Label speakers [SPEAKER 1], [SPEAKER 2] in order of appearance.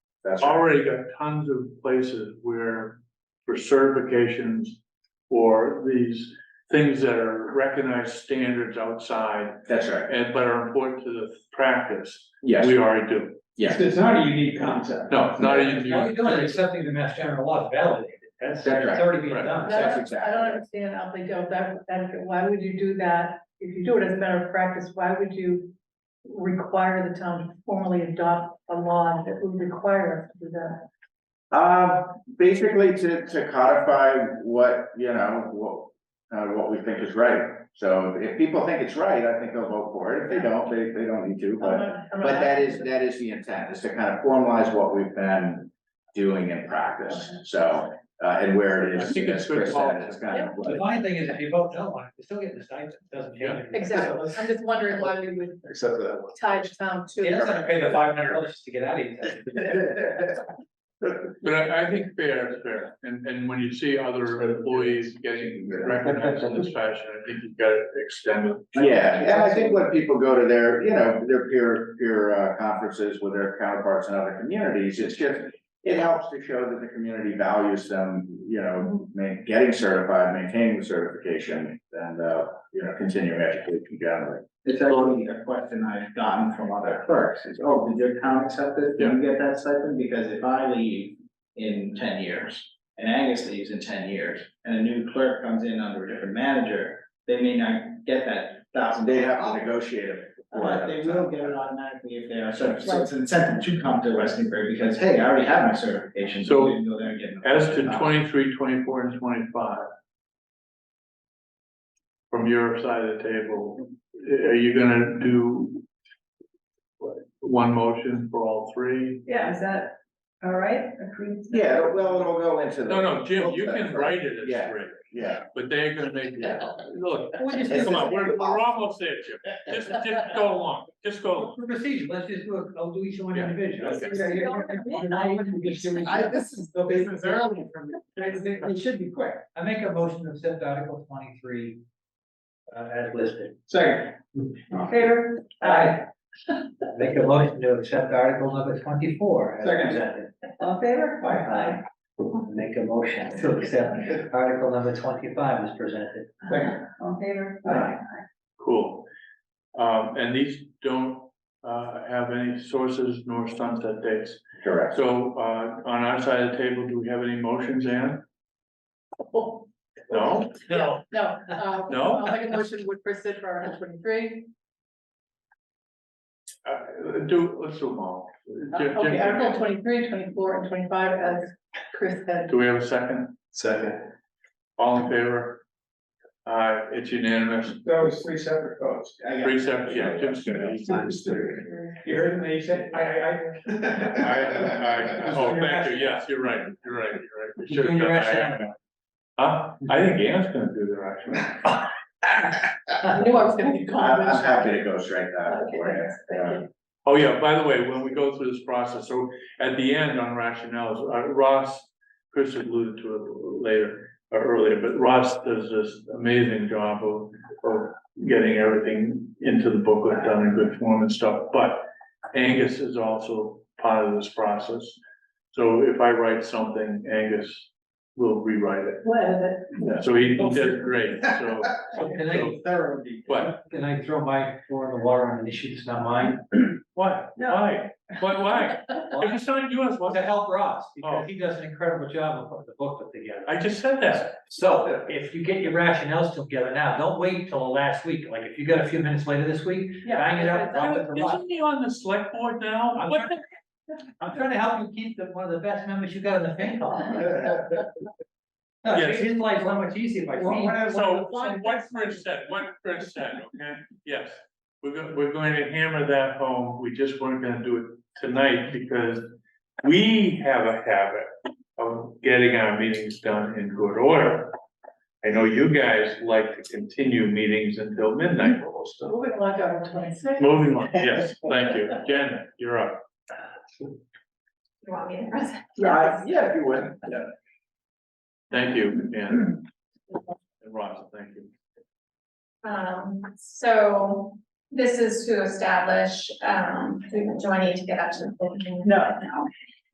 [SPEAKER 1] That's right.
[SPEAKER 2] already got tons of places where for certifications or these things that are recognized standards outside
[SPEAKER 1] That's right.
[SPEAKER 2] and but are important to the practice,
[SPEAKER 1] Yes,
[SPEAKER 2] we already do.
[SPEAKER 1] yes.
[SPEAKER 3] It's not a unique concept.
[SPEAKER 2] No, not
[SPEAKER 3] All
[SPEAKER 2] even,
[SPEAKER 3] you're doing is accepting the mass general law to validate it. That's,
[SPEAKER 1] That's
[SPEAKER 3] that's
[SPEAKER 1] right.
[SPEAKER 3] already being
[SPEAKER 2] Right.
[SPEAKER 3] done.
[SPEAKER 1] That's
[SPEAKER 4] That-
[SPEAKER 1] exactly
[SPEAKER 4] I don't
[SPEAKER 1] right.
[SPEAKER 4] understand how they don't, that, that, why would you do that? If you do it as a matter of practice, why would you require the town to formally adopt a law that would require us to do that?
[SPEAKER 1] Uh, basically to, to codify what, you know, what, uh, what we think is right. So if people think it's right, I think they'll vote for it. If they don't, they, they don't need to,
[SPEAKER 4] I'm
[SPEAKER 1] but,
[SPEAKER 4] not- I'm not
[SPEAKER 1] but that is,
[SPEAKER 4] asking-
[SPEAKER 1] that is the intent, is to kind of formalize what we've been doing in practice. So, uh, and where it
[SPEAKER 2] I
[SPEAKER 1] is,
[SPEAKER 2] think it's
[SPEAKER 1] as Chris
[SPEAKER 2] good policy.
[SPEAKER 1] said, it's kind of.
[SPEAKER 3] The fine thing is if you vote no on it, you're still getting the stipend, It doesn't
[SPEAKER 2] Yeah.
[SPEAKER 3] change.
[SPEAKER 4] Exactly, I'm just wondering why we would
[SPEAKER 1] Except for that one.
[SPEAKER 4] tie the town to.
[SPEAKER 3] He doesn't pay the five hundred dollars to get out of here.
[SPEAKER 2] but I, I think fair is fair. And, and when you see other employees getting recognized in this fashion, I think you've got to extend it.
[SPEAKER 1] Yeah, and I think when people go to their, you know, their peer, peer uh, conferences with their counterparts in other communities, it's just. It helps to show that the community values them, you know, ma- getting certified, maintaining the certification and, uh, you know, continuing education generally.
[SPEAKER 5] It's actually a question I've gotten from other clerks, is, oh, did your town accept this, did you get that stipend? Because if I leave in ten years, and Angus leaves in ten years, and a new clerk comes in under a different manager, they may not get that thousand.
[SPEAKER 1] They have to negotiate it.
[SPEAKER 5] But they will get it automatically if they are certified, so it's an incentive to come to West Newbury, because, hey, I already have my certification, so
[SPEAKER 2] So,
[SPEAKER 5] we can go there and get. it.
[SPEAKER 2] As to 23, 24, and twenty-five. From your side of the table, are you gonna do? what, One motion for all three?
[SPEAKER 4] Yeah, is that all right? Approved?
[SPEAKER 1] Yeah, well, it'll go into the.
[SPEAKER 2] No, no, Jim, you can write it as
[SPEAKER 1] Yeah.
[SPEAKER 2] three,
[SPEAKER 1] Yeah,
[SPEAKER 2] but they're gonna make, look,
[SPEAKER 3] We're just,
[SPEAKER 2] come on, we're, we're almost there, Jim. Just, just go along, just go. along.
[SPEAKER 3] for procedure, let's just do it, I'll do each one
[SPEAKER 2] Yeah.
[SPEAKER 3] individually.
[SPEAKER 2] Okay.
[SPEAKER 3] Yeah, you're- now you can just do each
[SPEAKER 5] I,
[SPEAKER 3] one.
[SPEAKER 5] this is the business early from me.
[SPEAKER 3] It should be quick. I make a motion to accept Article twenty-three uh, as listed.
[SPEAKER 5] Second.
[SPEAKER 4] Favor?
[SPEAKER 3] Aye. Make a motion to accept Article number twenty-four as
[SPEAKER 5] Second.
[SPEAKER 3] presented.
[SPEAKER 4] All in favor?
[SPEAKER 3] Aye. Make a motion to accept Article number twenty-five as presented.
[SPEAKER 5] Second.
[SPEAKER 4] All in favor?
[SPEAKER 3] Aye.
[SPEAKER 2] Cool. Um, and these don't, uh, have any sources nor sunset dates.
[SPEAKER 1] correct.
[SPEAKER 2] So, uh, on our side of the table, do we have any motions, Ann?
[SPEAKER 4] No.
[SPEAKER 2] No?
[SPEAKER 4] Oh, No, uh,
[SPEAKER 2] No?
[SPEAKER 4] I'll make a motion would proceed for Article twenty-three.
[SPEAKER 2] Uh, do, let's do them all.
[SPEAKER 4] Uh,
[SPEAKER 2] Jim-
[SPEAKER 4] Okay,
[SPEAKER 2] Jim,
[SPEAKER 4] Article 23, 24, and twenty-five as Chris said.
[SPEAKER 2] Do we have a second?
[SPEAKER 1] Second.
[SPEAKER 2] All in favor? Uh, it's unanimous,
[SPEAKER 5] That was three separate votes. I got it.
[SPEAKER 2] three separate, yeah, Jim's gonna.
[SPEAKER 5] You heard me, you said, I, I, I.
[SPEAKER 2] Oh, thank you, yes, you're right, you're right, you're right. We
[SPEAKER 3] You're doing
[SPEAKER 2] should've
[SPEAKER 3] your
[SPEAKER 2] done-
[SPEAKER 3] rationale.
[SPEAKER 2] Huh? I think Ann's gonna do their actually.
[SPEAKER 4] I knew I was gonna be
[SPEAKER 1] I'm,
[SPEAKER 4] called.
[SPEAKER 1] I'm happy to go straight that
[SPEAKER 4] Okay,
[SPEAKER 1] way.
[SPEAKER 4] thanks, thank you.
[SPEAKER 2] Oh, yeah, by the way, when we go through this process, so at the end on rationales, uh, Ross, Chris alluded to it later, or earlier, but Ross does this amazing job of, of getting everything into the booklet done in good form and stuff, but Angus is also part of this process. So if I write something, Angus will rewrite it.
[SPEAKER 4] What is it?
[SPEAKER 2] So he he did great, so,
[SPEAKER 3] Can I,
[SPEAKER 5] Thorough deep.
[SPEAKER 2] what,
[SPEAKER 3] can I throw my four in the water on an issue that's not mine?
[SPEAKER 2] why, why, why, why? If it's not yours, what's
[SPEAKER 3] To help Ross,
[SPEAKER 2] Oh.
[SPEAKER 3] because he does an incredible job of putting the booklet together.
[SPEAKER 2] I just said that.
[SPEAKER 3] So if you get your rationales together now, don't wait till the last week, like if you got a few minutes later this week, bang it up, drop it to Ross.
[SPEAKER 2] Isn't he on the select board now?
[SPEAKER 3] I'm
[SPEAKER 2] What the-
[SPEAKER 3] I'm trying to help you keep the, one of the best members you got in the fan club.
[SPEAKER 1] uh,
[SPEAKER 3] No,
[SPEAKER 2] Yes.
[SPEAKER 3] his life's not much easier by.
[SPEAKER 5] Well, when I-
[SPEAKER 2] So what what Chris said, what Chris said, okay, yes. We're go- we're going to hammer that home. We just weren't gonna do it tonight because we have a habit of getting our meetings done in good order. I know you guys like to continue meetings until midnight almost.
[SPEAKER 4] Moving along to Article twenty-six.
[SPEAKER 2] Moving on, yes, thank you. Jen, you're up.
[SPEAKER 4] You want me to press?
[SPEAKER 1] Uh, yeah, if you would, yeah.
[SPEAKER 2] Thank you, Jen. And Ross, thank you.
[SPEAKER 6] Um, so this is to establish, um, we- do I need to get up to the? full meeting?
[SPEAKER 4] No.
[SPEAKER 6] No.